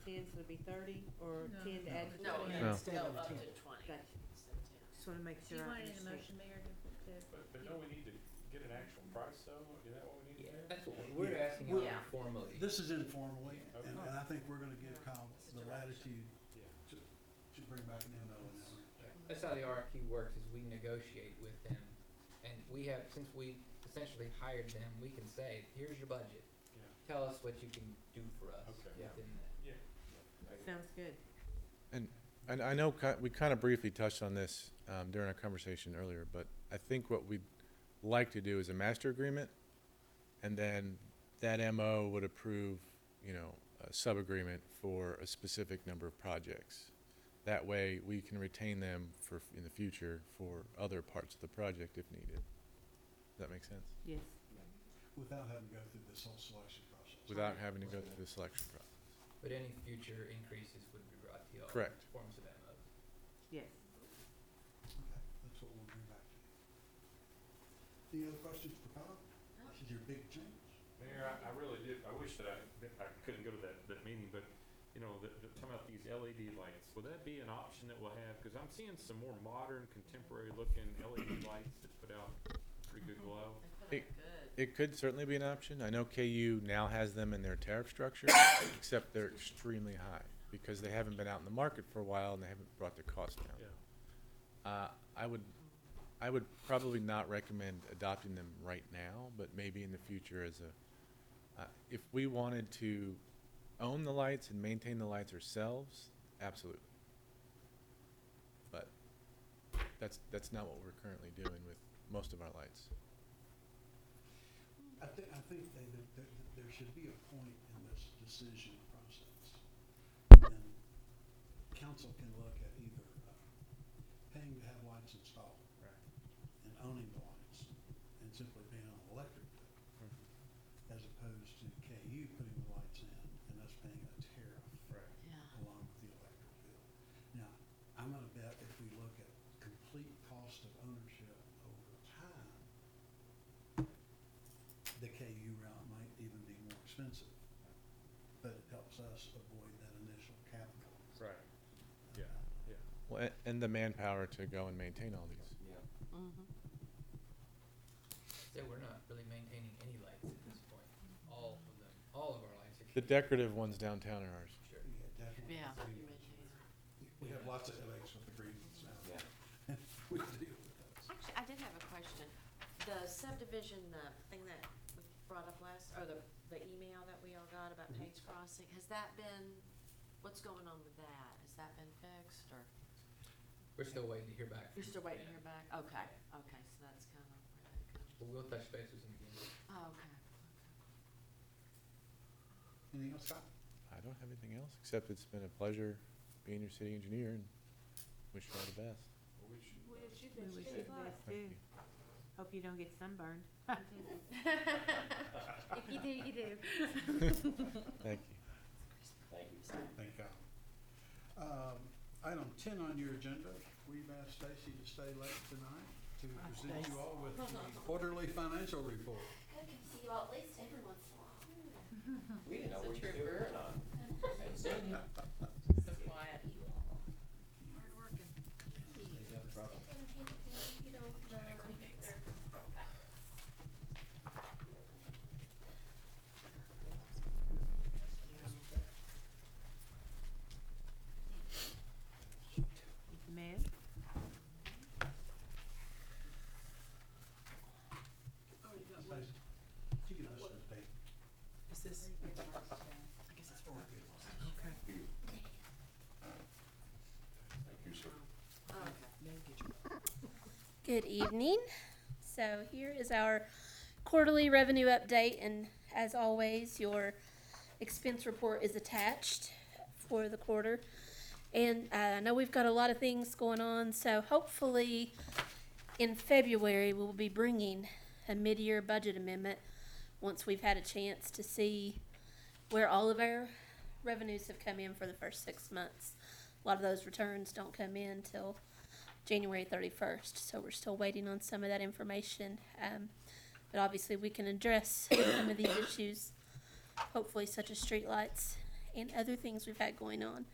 ten, so it'd be thirty, or No. ten to add to No, twenty? it No. would go up to twenty. Gotcha, just wanna make Do sure you I want it in a understand. motion, Mayor, to, to, But, but don't we need to get an actual price though? Is that what we need to do? That's what we're, we're asking Yeah. about informally. This is informally, and, Okay. and I think we're gonna give Kyle the latitude Yeah. to, to bring back an MO in that. That's how the RFQ works, is we negotiate with them, and we have, since we essentially hired them, we can say, here's your budget. Yeah. Tell us what you can do for us Okay. within Yeah. that. Sounds good. And I know ki- we kind of briefly touched on this um, during our conversation earlier, but I think what we'd like to do is a master agreement, and then that MO would approve, you know, a sub-agreement for a specific number of projects. That way, we can retain them for, in the future, for other parts of the project if needed. Does that make sense? Yes. Without having to go through this whole selection process. Without having to go through the selection process. But any future increases would be brought to y'all. in Correct. Forms of MO. Yes. Okay, that's what we'll bring back to you. Any other questions for Kyle? This is your big change. Mayor, I, I really did, I wish that I, that I couldn't go to that, that meeting, but, you know, the, the, talking about these LED lights, will that be an option that we'll have? Cause I'm seeing some more modern, contemporary looking LED lights that put out pretty good glow. They It- put out good. It could certainly be an option. I know KU now has them in their tariff structure, except they're extremely high because they haven't been out in the market for a while and they haven't brought their costs down. Yeah. Uh, I would, I would probably not recommend adopting them right now, but maybe in the future as a, uh, if we wanted to own the lights and maintain the lights ourselves, absolutely. But that's, that's not what we're currently doing with most of our lights. I think, I think they, that, that, that there should be a point in this decision process. when council can look at either uh, paying to have lights installed. And owning the lights, and simply paying on electric bill. As opposed to KU putting the lights in and us paying a tariff. Yeah. Along with the electric bill. Now, I'm gonna bet if we look at complete cost of ownership over time, the KU route might even be more expensive, but it helps us avoid that initial capital. Uh, Right. Yeah, yeah. Well, a- and the manpower to go and maintain all these. Mm-hmm. So we're not really maintaining any lights at this point. All of them, all of our lights are. The kept, decorative ones downtown are ours. Sure. Yeah, definitely. Yeah. We have lots of headaches with the green ones now. Yeah. We deal with those. Actually, I did have a question. The subdivision, the thing that was brought up last, or the, the email that we all got about Mhm. Mm-hmm. Page Crossing, has that been, what's going on with that? Has that been fixed or? We're still waiting to hear back. You're from- still waiting to yeah. hear back? Okay, okay, so that's kind of where that comes. But we'll touch base with them again. Oh, okay. Anything else, Scott? I don't have anything else, except it's been a pleasure being your city engineer and wish you all the best. Well, we should, uh, We wish you the best Thank too. you. Hope you don't get sunburned. If you do, you do. Thank you. Thank God. Um, item ten on your agenda, we've asked Stacy to stay late tonight to Hi, present Stacy. you all with the quarterly financial report. I can see you all at least every once in a while. We didn't know It's a what you were trooper. doing on. So quiet. Hard working. You don't know. Mayor? Stacy, you can listen to Dave. is this? Okay. Okay. Good evening. So here is our quarterly revenue update, and as always, your expense report is attached for the quarter. And uh, I know we've got a lot of things going on, so hopefully in February, we'll be bringing a mid-year budget amendment once we've had a chance to see where all of our revenues have come in for the first six months. A lot of those returns don't come in till January 31st. So we're still waiting on some of that information. Um, but obviously, we can address some of these issues, hopefully, such as streetlights and other things we've had going on.